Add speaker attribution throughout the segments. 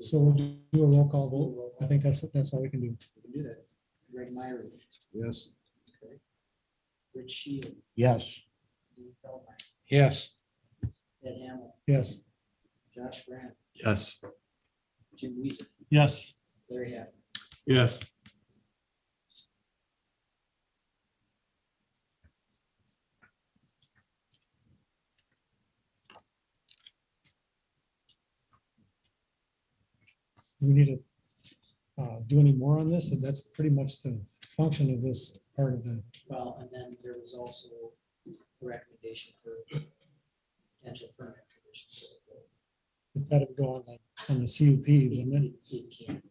Speaker 1: So we'll do a roll call vote. I think that's, that's all we can do.
Speaker 2: We can do that. Greg Myrie.
Speaker 3: Yes.
Speaker 2: Okay. Rich Shield,
Speaker 4: Yes,
Speaker 2: Dean Feldmeyer,
Speaker 3: Yes.
Speaker 2: Ed Hamel,
Speaker 1: Yes.
Speaker 2: Josh Grant,
Speaker 3: Yes.
Speaker 2: Jim Weezer,
Speaker 1: Yes.
Speaker 2: Larry Happ.
Speaker 3: Yes.
Speaker 1: We need to uh, do any more on this, and that's pretty much the function of this part of the,
Speaker 2: Well, and then there was also a recommendation for potential permanent conditions.
Speaker 1: that'd go on the, on the CUP, didn't it?
Speaker 2: It it can't.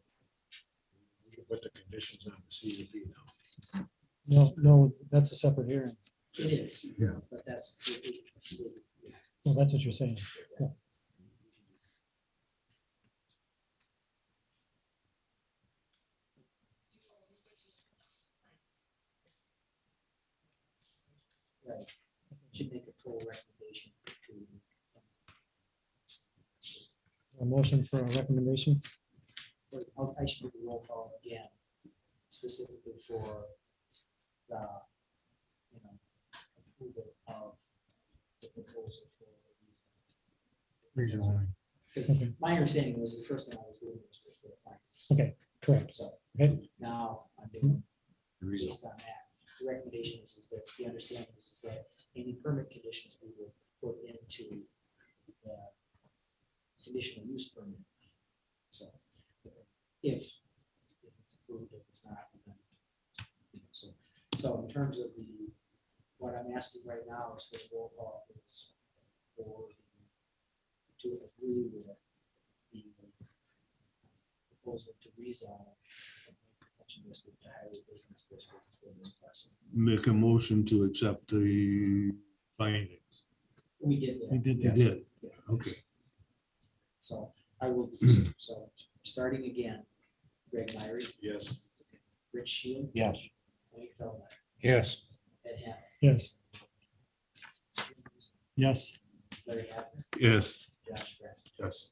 Speaker 3: We can put the conditions on the CUP now.
Speaker 1: No, no, that's a separate hearing.
Speaker 2: It is.
Speaker 3: Yeah.
Speaker 2: But that's. All
Speaker 1: Well, that's what you're saying. Yeah.
Speaker 2: Right. Should make a full recommendation to
Speaker 1: A motion for a recommendation.
Speaker 2: Or I'll actually do the roll call again, specifically for the, you know, approval of the proposal for.
Speaker 3: Redesign.
Speaker 2: Because
Speaker 1: Okay,
Speaker 2: my understanding was the first thing I was doing was for the finance,
Speaker 1: Okay, correct.
Speaker 2: so.
Speaker 1: Okay.
Speaker 2: Now I'm doing
Speaker 5: Mm-hmm.
Speaker 3: Reason.
Speaker 2: based on that. The recommendation is, is that the understanding is, is that any permit conditions we will put into the conditional use permit. So if if it's approved, if it's not, then, you know, so, so in terms of the, what I'm asking right now is for the roll call is for the- to agree with the proposal to rezone Collection District to Highway Business District for this parcel.
Speaker 5: make a motion to accept the findings.
Speaker 2: We did that.
Speaker 1: We did
Speaker 5: You
Speaker 1: that.
Speaker 5: did,
Speaker 2: Yeah.
Speaker 5: okay.
Speaker 2: So I will, so starting again, Greg Myrie,
Speaker 3: Yes.
Speaker 2: Rich Shield,
Speaker 4: yes.
Speaker 2: Wade Feldmeyer,
Speaker 3: Yes.
Speaker 2: Ed Hamel,
Speaker 1: Yes. Yes.
Speaker 2: Larry Haffner,
Speaker 5: Yes,
Speaker 2: Josh Grant.
Speaker 3: Yes.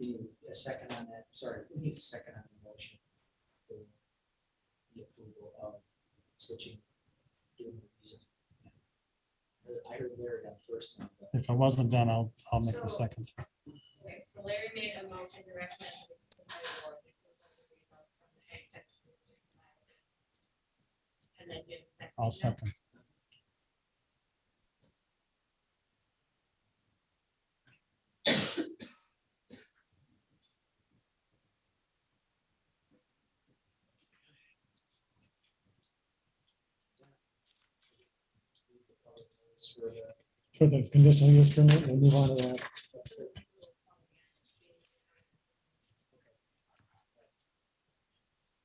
Speaker 2: We need a second on that, sorry, we need a second on the motion. for The approval of switching. doing the visa. I heard Larry on first. and I'm
Speaker 1: If I wasn't done, I'll, I'll
Speaker 6: make the
Speaker 1: second.
Speaker 6: Okay, so Larry made a motion to recommend. that the Assembly Board approve the rezone from the Ag Tech to District five. And then give a second.
Speaker 2: done. For the-
Speaker 1: For the conditional use permit, we'll move on to that.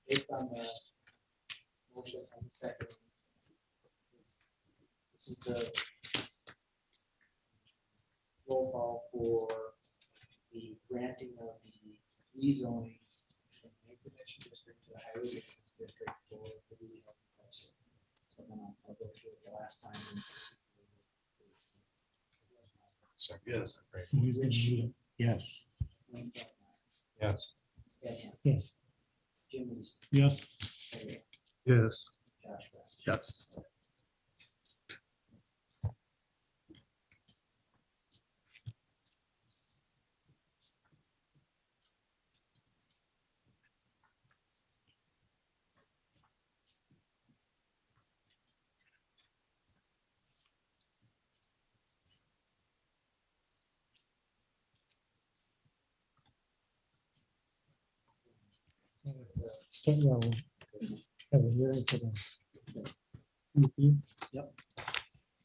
Speaker 2: Based on the motion from the second. This is the roll call for the granting of the rezoning from the Lake protection district to the highway business district for the Lee Health Parcel. So then I'll I'll go through it the last time.
Speaker 3: Yes.
Speaker 4: Yes.
Speaker 2: Wayne Feldmeyer,
Speaker 3: Yes.
Speaker 2: Ed Hamel,
Speaker 1: Yes.
Speaker 2: Jim Weezer,
Speaker 1: Yes.
Speaker 2: Larry Haffner,
Speaker 5: yes.
Speaker 2: Josh Grant.
Speaker 3: Yes.
Speaker 1: Start, yeah, we'll have a hearing for the.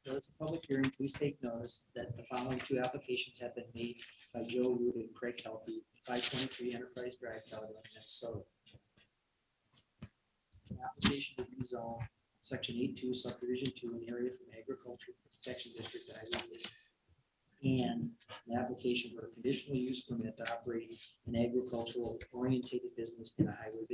Speaker 2: Notice of public hearing, please take notice that the following two applications have been made by Joe Root and Craig Helpy, five twenty-three Enterprise Drive, Caledonia, Minnesota. An Application to rezone section eight-two subdivision to an area from agricultural protection district to highway district. And an application for a conditional use permit to operate an agricultural orientated business in a highway